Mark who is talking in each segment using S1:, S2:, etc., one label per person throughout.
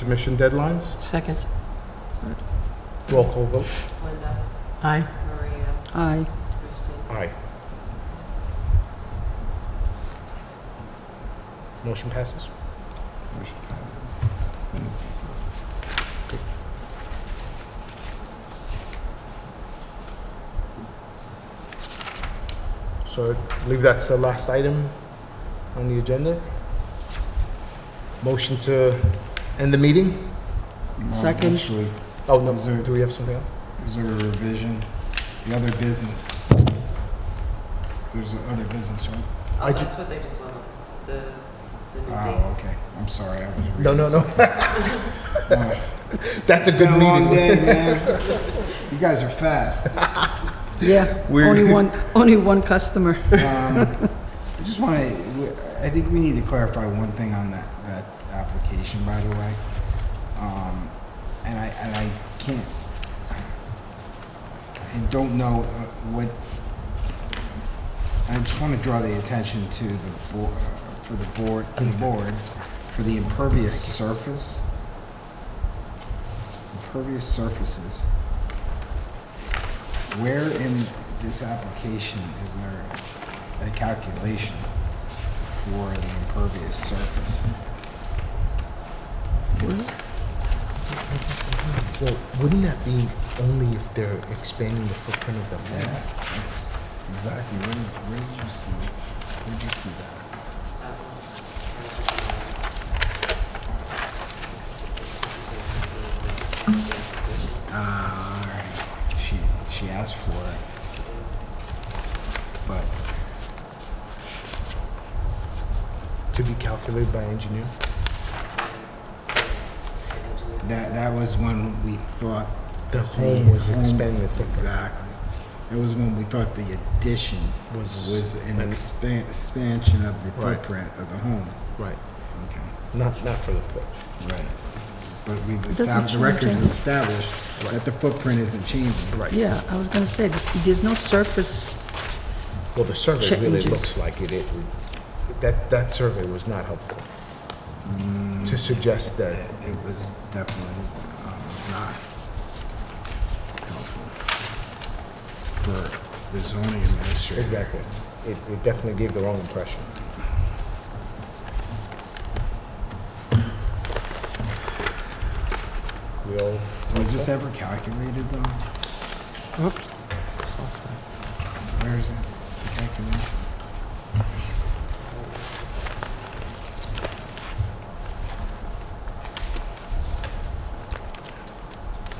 S1: submission deadlines.
S2: Second.
S1: Roll call vote.
S3: Linda,
S2: Aye.
S3: uh, Maria,
S4: Aye.
S3: Kristen,
S1: Aye. Motion passes.
S5: Motion passes. And it's easy.
S1: So I believe that's the last item on the agenda. Motion to end the meeting?
S5: No,
S4: Second.
S5: Um, Actually,
S1: Oh, no,
S5: Is there-
S1: do we have something else?
S5: is there a revision? The other business. There's a other business, right?
S1: I
S3: oh,
S1: ju- Ah,
S3: that's what they just want, the, the new
S5: Oh,
S3: dates.
S5: okay. I'm sorry, I was reading.
S1: No, no, no.
S5: something. Oh,
S1: That's a
S5: It's been
S1: good
S5: a long
S1: meeting.
S5: day, man. You guys are fast.
S4: Yeah,
S1: We're-
S4: only one, only one customer.
S5: Um, I just want to, I think we need to clarify one thing on that, that application, by the way. Um, and I, and I can't, I don't know uh, what, I just want to draw the attention to the board, for the board, to the board, for the impervious surface. Impervious surfaces. Where in this application is there a calculation for the impervious surface?
S1: Well, wouldn't that be only if they're expanding the footprint of the
S5: Yeah,
S1: land?
S5: that's exactly, where, where did you see, where did you see that?
S3: That was- that
S5: Ah, all right. She, she asked for it. But,
S1: To be calculated by engineer?
S3: was the-
S5: that, that was when we thought.
S1: The
S5: the
S1: home was
S5: home-
S1: expanding the footprint.
S5: Exactly. That was when we thought the addition
S1: Was-
S5: was an
S1: like-
S5: expan- expansion of the
S1: Right.
S5: footprint of the home.
S1: Right.
S5: Okay.
S1: Not, not for the porch.
S5: Right. But we've
S4: doesn't
S5: established, the
S4: change
S5: record is
S4: anything.
S5: established that the footprint isn't changing.
S1: Right.
S4: Yeah, I was gonna say, there's no surface,
S1: Well, the survey really
S4: Changes.
S1: looks like it, it, it- that, that survey was not helpful
S5: Mm.
S1: to suggest that,
S5: It was definitely um, not helpful for the zoning administrator.
S1: exactly. It, it definitely gave the wrong impression. We all,
S5: Was this ever calculated though?
S2: Oops.
S5: Where is it? The calculation?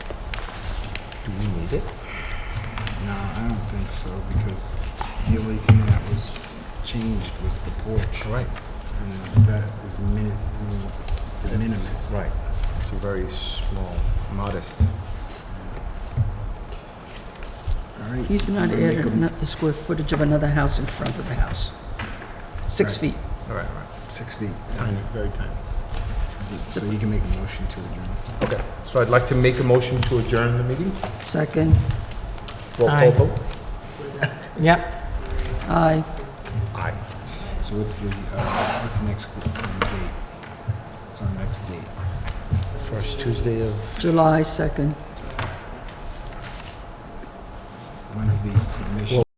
S1: do we need it?
S5: No, I don't think so because the only thing that was changed was the porch.
S1: Right.
S5: And that is mini, de minimis.
S1: Right. It's a very small, modest.
S5: All right.
S4: he's not
S5: I'm gonna make a
S4: adding not the square footage of another house in front of the house. Six
S5: Right.
S4: feet.
S1: All right, all right.
S5: Six feet.
S1: Tiny, very tiny.
S5: So you can make a motion to adjourn.
S1: Okay, so I'd like to make a motion to adjourn the meeting.
S4: Second,
S1: Roll call
S2: Aye.
S1: vote.
S2: Yep.
S4: aye.
S1: Aye.
S5: So what's the, uh, what's the next qu- uh, date? What's our next date?
S1: First Tuesday of.
S4: July 2nd.
S5: When's the submission?